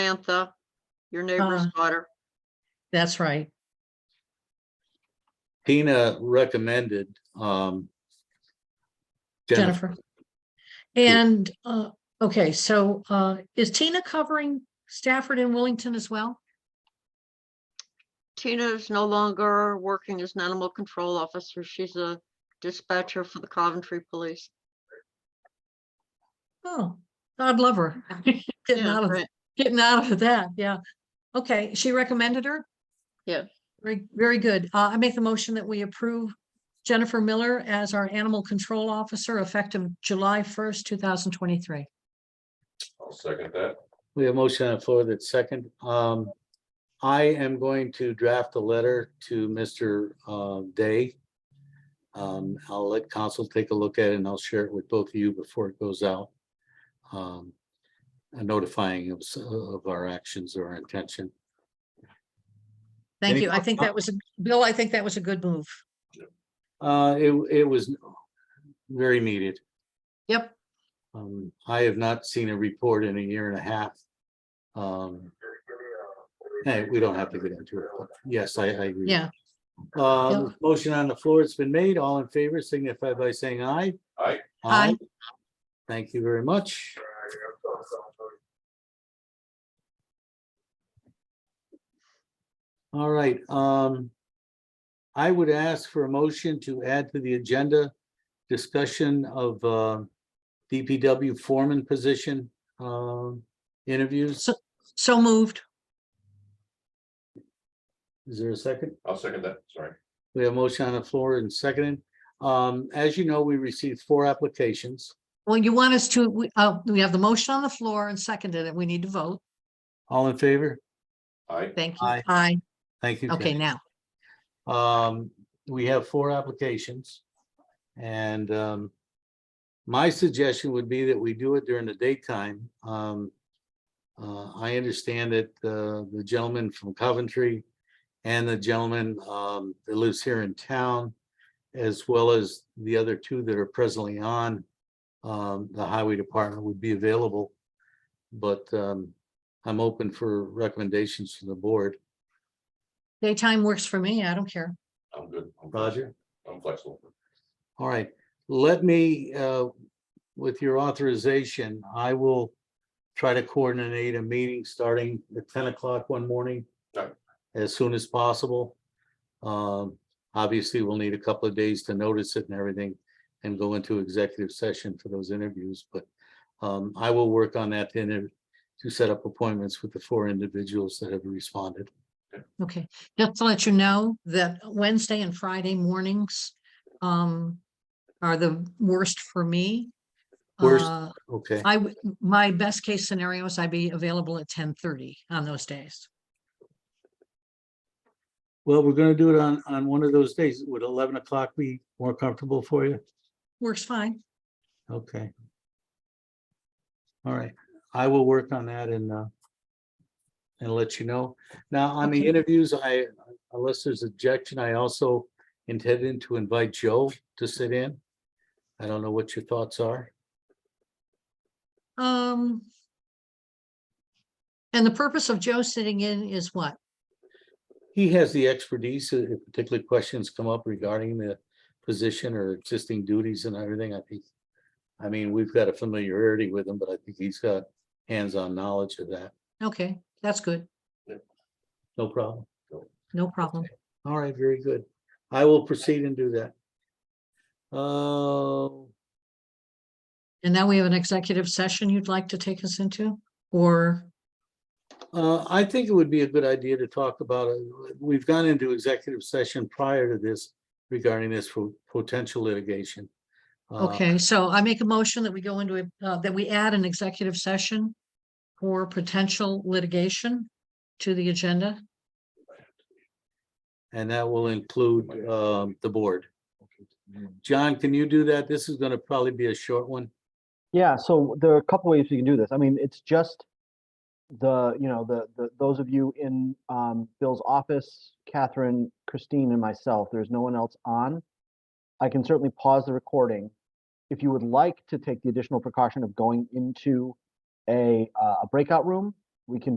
Samantha, your neighbor's Uh-huh. daughter. That's right. Tina recommended, um. Jennifer. And, uh, okay, so, uh, is Tina covering Stafford and Willington as well? Tina is no longer working as an animal control officer. She's a dispatcher for the Coventry Police. Oh, God love her. Getting Yeah, out of, right. getting out of that, yeah. Okay, she recommended her? Yeah. Very, very good. Uh, I make the motion that we approve Jennifer Miller as our animal control officer effective July first, two thousand twenty-three. I'll second that. We have motion on the floor that's second. Um, I am going to draft a letter to Mr. uh, Day. Um, I'll let council take a look at it and I'll share it with both of you before it goes out. Um, and notifying of, s- of our actions or intention. Thank Any you. I think that was, a- Bill, I think that was a good move. Uh, it, it was very needed. Yep, Um, I have not seen a report in a year and a half. Um. Hey, we don't have to get into it. but Yes, I, I agree. yeah. Um, motion on the floor, it's been made. All in favor signify by saying aye. Aye. Aye. Thank you very much. All right, um. I would ask for a motion to add to the agenda discussion of, uh, DPW foreman position, um, interviews. So moved. Is there a second? I'll second that, sorry. We have a motion on the floor and seconded. Um, as you know, we received four applications. Well, you want us to, we, uh, we have the motion on the floor and seconded it. We need to vote. All in favor? Aye, Thank you. Aye. Aye. Thank you. Ken. Okay, now. Um, we have four applications. And, um, my suggestion would be that we do it during the daytime. Um, uh, I understand that, uh, the gentleman from Coventry and the gentleman, um, that lives here in town, as well as the other two that are presently on, um, the highway department would be available. But, um, I'm open for recommendations from the board. Daytime works for me. I don't care. I'm good. I'm flexible. Roger? I'm flexible. All right, let me, uh, with your authorization, I will try to coordinate a meeting starting at ten o'clock one morning Right. as soon as possible. Um, Obviously, we'll need a couple of days to notice it and everything and go into executive session for those interviews, but um, I will work on that to inter- to set up appointments with the four individuals that have responded. Okay, just to let you know that Wednesday and Friday mornings um are the worst for me. Worst. Uh, Okay, I, would- my best case scenario is I'd be available at ten thirty on those days. well, we're gonna do it on, on one of those days. Would eleven o'clock be more comfortable for you? Works fine. Okay. All right, I will work on that and, uh, and let you know. Now, on the Okay. interviews, I, unless there's objection, I also intended to invite Joe to sit in. I don't know what your thoughts are. Um. And the purpose of Joe sitting in is what? He has the expertise, uh, if particular questions come up regarding the position or existing duties and everything, I think. I mean, we've got a familiarity with him, but I think he's got hands-on knowledge of that. Okay, that's good. No problem. No problem. All right, very good. I will proceed and do that. Uh, And now we have an executive session you'd like to take us into, or, uh, I think it would be a good idea to talk about, uh, we've gone into executive session prior to this regarding this for potential litigation. Uh, okay, so I make a motion that we go into, a- uh, that we add an executive session for potential litigation to the agenda. And that will include, um, the board. John, can you do that? This is gonna probably be a short one. Yeah, so there are a couple ways we can do this. I mean, it's just the, you know, the, the, those of you in um, Bill's office, Catherine, Christine, and myself, there's no one else on. I can certainly pause the recording. If you would like to take the additional precaution of going into a, uh, a breakout room, we can